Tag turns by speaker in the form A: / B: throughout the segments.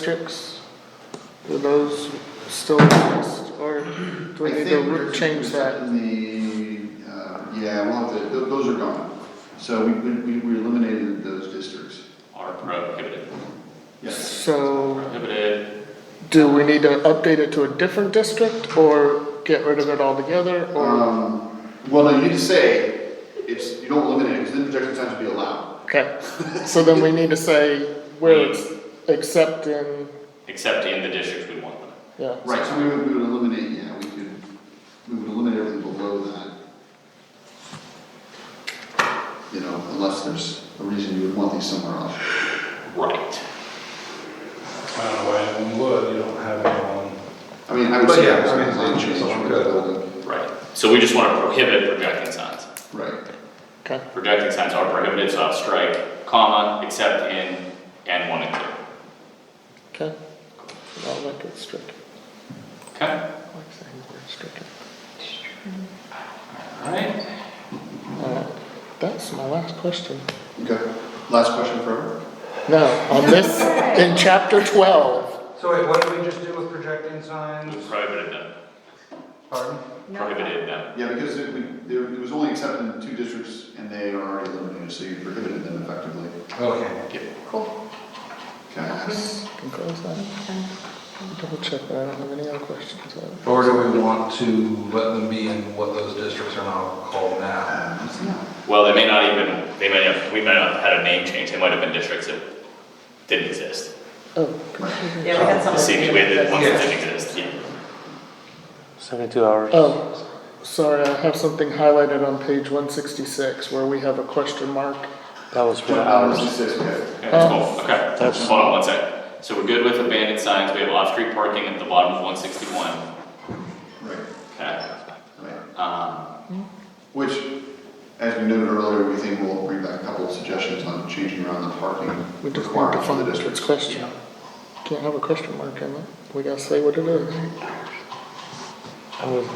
A: districts? Do those still exist, or do we
B: I
A: need to
B: think
A: re-
B: there's-
A: change that?
B: The, uh, yeah, we'll have to, tho- those are gone. So we, we, we eliminated those districts.
C: are prohibited.
B: Yes.
A: So,
C: Prohibited,
A: do we need to update it to a different district, or get rid of it altogether, or,
B: Um, well, no, you need to say, it's, you don't eliminate it, because then projection signs would be allowed.
A: okay? So then we need to say where it's except in,
C: except in the districts we want them.
A: yeah.
B: Right, so we would, we would eliminate, yeah, we could, we would eliminate everything below that. You know, unless there's a reason you would want these somewhere else.
C: Right.
D: Kind of way in wood, you don't have it on.
B: I mean, I would
D: But
B: say.
D: yeah,
B: it's
D: I mean,
B: a design
D: it's
B: change
D: all
B: for
D: good.
B: the building.
C: Right. So we just wanna prohibit projecting signs.
B: Right,
A: Okay,
C: Projecting signs are prohibited, so I'll strike comma, except in and one and two.
A: okay. I'll make it strict,
C: Okay?
A: I like saying word strict.
C: Alright.
A: Alright, that's my last question.
B: okay. Last question for her?
A: No, on this, in chapter twelve,
D: So wait, what did we just do with projecting signs?
C: Prohibited them,
D: Pardon?
C: prohibited them.
B: Yeah, because it, we, there, it was only accepted in two districts and they are already eliminated, so you prohibited them effectively.
D: Okay.
E: Cool.
B: Okay.
A: can close that. Double check that, I don't have any other questions. Uh,
F: Or do we want to let them be in what those districts are now called now?
B: Um, it's not-
C: Well, they may not even, they may have, we might have had a name change, they might have been districts that didn't exist.
A: Oh,
E: Yeah, we had
C: The
E: something.
C: same way that ones that didn't exist, yeah.
G: Seventy-two hours.
A: oh, sorry, I have something highlighted on page one sixty-six where we have a question mark.
G: That was for
B: Two
G: the
B: hours and
G: hours.
B: six, okay.
C: Okay, Oh. that's cool, okay.
G: That's-
C: Hold on one sec. So we're good with abandoned signs, we have off-street parking at the bottom of one sixty-one,
B: Right,
C: okay?
B: right. Hmm?
C: Um,
B: Which, as we noted earlier, we think we'll bring back a couple of suggestions on changing around the parking
A: We just want to
B: requirement for the
A: find its
B: districts.
A: question. Can't have a question mark in it, we gotta say what it is.
G: I would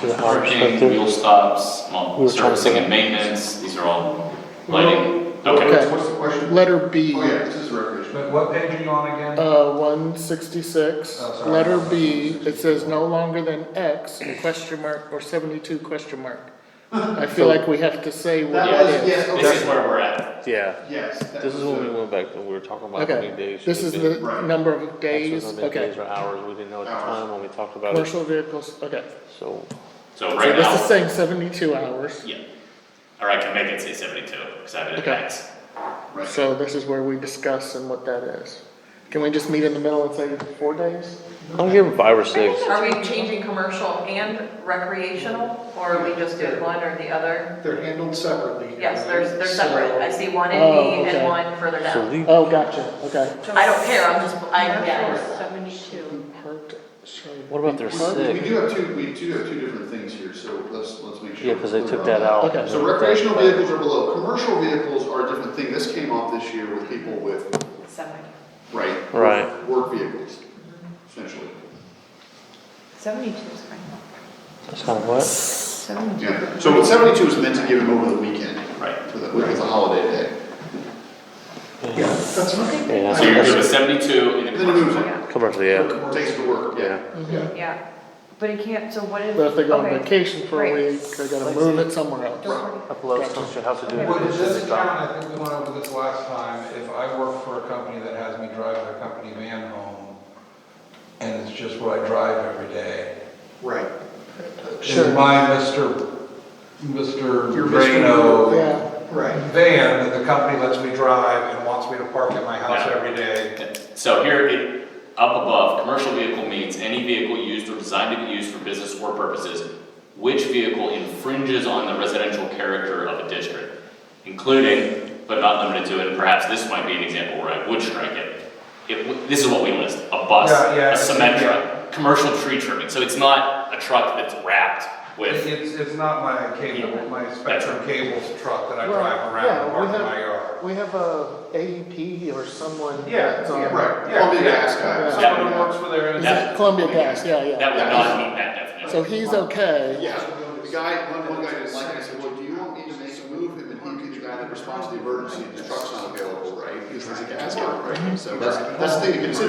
G: do the hours.
C: parking,
G: but there-
C: wheel stops,
G: We
C: well,
G: were trying to
C: servicing
G: think-
C: and maintenance, these are all lighting, okay.
A: Okay.
B: What's the question?
A: Letter B,
B: Oh, yeah, this is recreation.
D: But what page are you on again?
A: uh, one sixty-six,
D: Oh, sorry.
A: letter B, it says no longer than X, question mark, or seventy-two question mark. I feel like we have to say what
B: That was,
A: it is.
B: yes,
C: This is
B: okay,
C: where we're at,
G: Yeah,
B: yes. that
G: this is
B: was
G: when we
B: the-
G: went back and we were talking about how many
A: Okay,
G: days.
A: this
G: should
A: is
G: be-
A: the
B: Right.
A: number of
G: actually,
A: days,
G: how many
A: okay.
G: Days or hours, we didn't know at the
B: Hours.
G: time when we talked about it,
A: Commercial vehicles, okay.
G: so.
C: so
A: So
C: right
A: this is
C: now,
A: saying seventy-two hours,
C: yeah. Or I can make it say seventy-two, cause I have it in
A: Okay.
C: X.
B: Right,
A: so this is where we discuss and what that is. Can we just meet in the middle and say four days?
G: I'm giving five or six.
E: Are we changing commercial and recreational, or are we just doing one or the other?
H: They're handled separately.
E: Yes,
H: right?
E: they're, they're separate, I see one in
A: Oh,
E: B
A: okay.
E: and one further
G: So
E: down.
G: leave,
A: Oh, gotcha, okay.
E: I don't care, I'm just, I, yeah.
I: Seventy-two.
A: Parked, sorry.
G: what about their
B: So We we
G: six?
B: do have two, we do have two different things here, so let's, let's make sure.
G: Yeah,
B: we're
G: cause they
B: clear
G: took
B: on
G: that out.
A: Okay.
G: and
B: So
G: then we
B: recreational
G: back-
B: vehicles are below, commercial vehicles are a different thing, this came off this year with people with,
E: Seventy.
B: right?
G: Right.
B: Work vehicles, essentially,
I: Seventy-two is fine.
G: That's kind of what?
I: Seventy-two.
B: yeah, so what seventy-two was meant to give them over the weekend,
C: Right.
B: for the, with the holiday day.
H: Yeah, that's fine.
G: Yeah,
C: So you're good
G: that's,
C: with seventy-two in the
B: And Then it moves
C: commercial.
B: on,
G: commercial, yeah,
B: takes it to work, yeah.
G: yeah.
H: Yeah.
I: Yeah, but it can't, so what if?
A: But if they go on
I: okay,
A: vacation for a
I: right.
A: week, they gotta move it somewhere else.
I: Don't worry.
G: Upload stuff you have to do.
D: Well, it doesn't count, I think we went over this last time, if I work for a company that has me drive their company van home, and it's just what I drive every day,
H: Right.
D: is my Mr. Mr.
H: Your van.
D: Vano
A: Yeah,
H: Right.
D: van that the company lets me drive and wants me to park at my house
C: Yeah.
D: every day.
C: So here, it, up above, commercial vehicle means any vehicle used or designed to be used for business or purposes, which vehicle infringes on the residential character of a district, including, but not limited to, and perhaps this might be an example where I would strike it. It, w- this is what we list, a bus,
D: Yeah, yeah,
C: a
D: it's-
C: Symetra, commercial tree trimming, so it's not a truck that's wrapped with
D: It's, it's not my cable, my Spectrum Cables truck that I
A: Well,
D: drive
A: yeah,
D: around and
A: we
D: park in
A: have-
D: my yard.
A: we have a AEP or someone
D: Yeah,
A: that's on.
D: yeah,
B: Right,
D: Yeah,
B: Columbia
D: yeah.
B: Gas guy.
A: Yeah.
C: That
D: Someone who works for their.
A: Is
D: own-
A: that Columbia Gas, yeah, yeah.
C: That would not meet that definition.
A: So he's okay.
B: Yeah, the guy, one, one guy didn't like it, I said, well, do you want me to make a move, and then he'd be the guy that responds to the emergency, and the truck's not available, right? Because there's a gas guy, right? So that's, that's the thing to consider.